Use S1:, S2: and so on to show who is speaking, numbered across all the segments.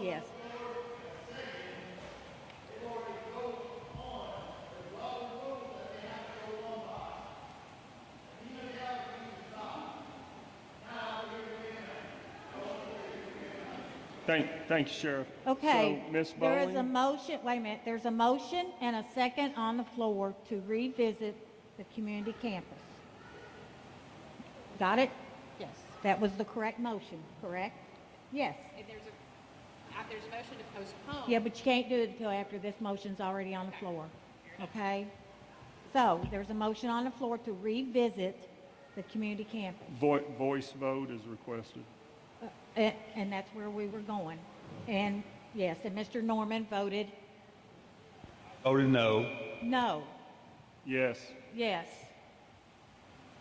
S1: Yes.
S2: Thank, thank you, Sheriff.
S1: Okay.
S2: So, Ms.
S1: There is a
S2: Bowling,
S1: motion, wait a minute, there's a motion and a second on the floor to revisit the community campus. Got it?
S3: Yes.
S1: That was the correct motion, correct? Yes.
S3: And there's a, uh, there's a motion to postpone.
S1: Yeah, but you can't do it until after this motion's already on the floor, okay? So there's a motion on the floor to revisit the community campus.
S2: vo- voice vote is requested.
S1: And, eh, and that's where we were going. And yes, and Mr. Norman voted
S4: Voted no.
S1: no,
S2: Yes,
S1: yes,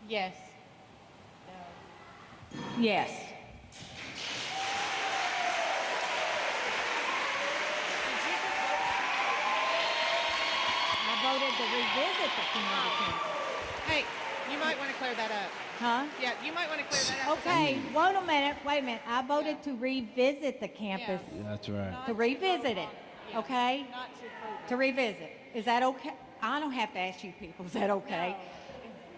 S3: Yes.
S1: yes. I voted to revisit the community campus,
S3: Hey, you might want to clear that up.
S1: huh?
S3: Yeah, you might want to clear that up.
S1: Okay, wait a minute, wait a minute. I voted to revisit the campus,
S4: That's right.
S1: to revisit it, okay?
S3: Not to approve.
S1: To revisit. Is that okay? I don't have to ask you people, is that okay?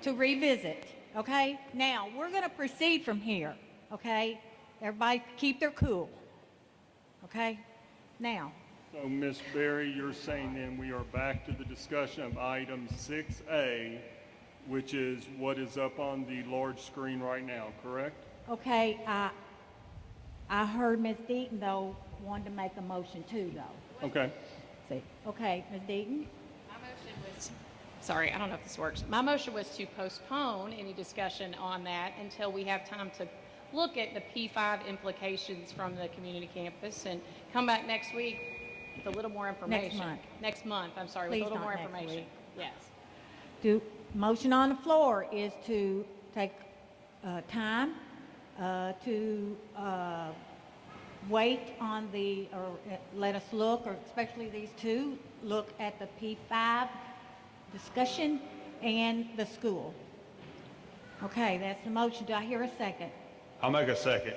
S1: To revisit, okay? Now, we're going to proceed from here, okay? Everybody keep their cool, okay? Now,
S2: so Ms. Berry, you're saying then we are back to the discussion of item 6A, which is what is up on the large screen right now, correct?
S1: okay, I, I heard Ms. Deaton though wanted to make a motion too though.
S2: Okay,
S1: See, okay, Ms. Deaton?
S3: My motion was, sorry, I don't know if this works. My motion was to postpone any discussion on that until we have time to look at the P5 implications from the community campus and come back next week with a little more information.
S1: month.
S3: Next month, I'm sorry, with
S1: Please
S3: a little
S1: not
S3: more
S1: next
S3: information.
S1: week.
S3: Yes.
S1: Do, motion on the floor is to take uh, time uh, to uh, wait on the, or uh, let us look, or especially these two, look at the P5 discussion and the school. Okay, that's the motion. Do I hear a second?
S4: I'll make a second.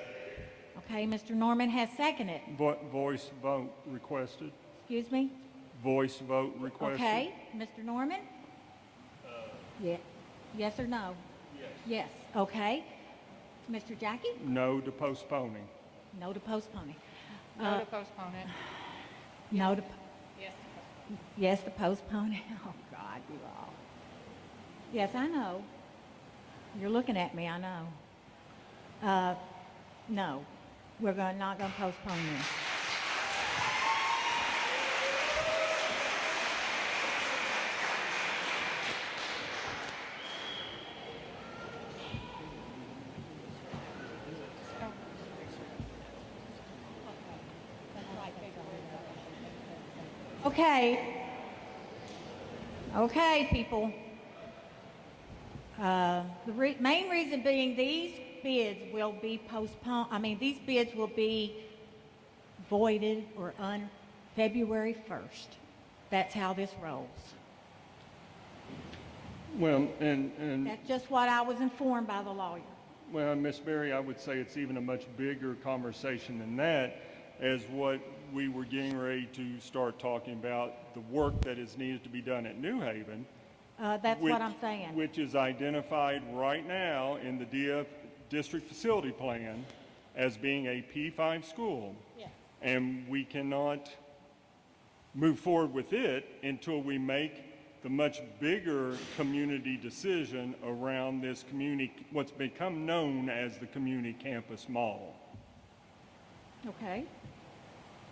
S1: Okay, Mr. Norman has seconded.
S2: Vo- voice vote requested,
S1: Excuse me?
S2: voice vote requested.
S1: Okay, Mr. Norman? Yeah, yes or no? Yes. Yes, okay. Mr. Jackie?
S2: No to postponing.
S1: No to postponing.
S3: No to postpone it.
S1: No to,
S3: Yes.
S1: yes to postpone it. Oh, God, you all. Yes, I know. You're looking at me, I know. Uh, no, we're gonna, not gonna postpone this. Okay. Okay, people. Uh, The re- main reason being these bids will be postponed, I mean, these bids will be voided or on February 1st. That's how this rolls.
S2: Well, and, and.
S1: That's just what I was informed by the lawyer.
S2: Well, Miss Berry, I would say it's even a much bigger conversation than that, as what we were getting ready to start talking about, the work that is needed to be done at New Haven.
S1: Uh, That's what
S2: which-
S1: I'm saying.
S2: Which is identified right now in the DF, District Facility Plan, as being a P5 school.
S3: Yes.
S2: And we cannot move forward with it until we make the much bigger community decision around this community, what's become known as the community campus model.
S1: Okay.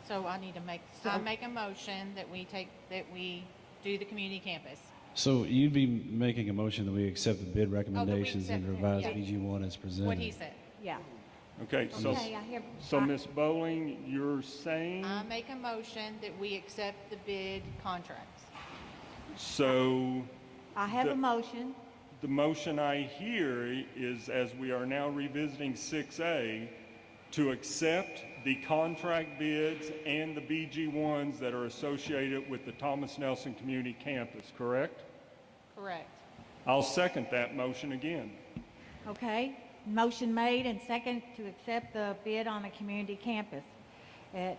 S5: So I need to make, I make a motion that we take, that we do the community campus.
S6: So you'd be making a motion that we accept the bid
S5: Oh, we
S6: recommendations and
S5: accept it,
S6: revise
S5: yeah.
S6: BG one as presented.
S5: What he said.
S1: Yeah.
S2: Okay, so,
S1: Okay, I Uh, hear.
S2: so
S1: I-
S2: Ms. Bowling, you're saying,
S5: I make a motion that we accept the bid contracts.
S2: so
S1: I have a
S2: the-
S1: motion.
S2: the motion I hear is, as we are now revisiting 6A, to accept the contract bids and the BG1s that are associated with the Thomas Nelson Community Campus, correct?
S5: Correct.
S2: I'll second that motion again.
S1: Okay, motion made and second to accept the bid on the community campus. Uh,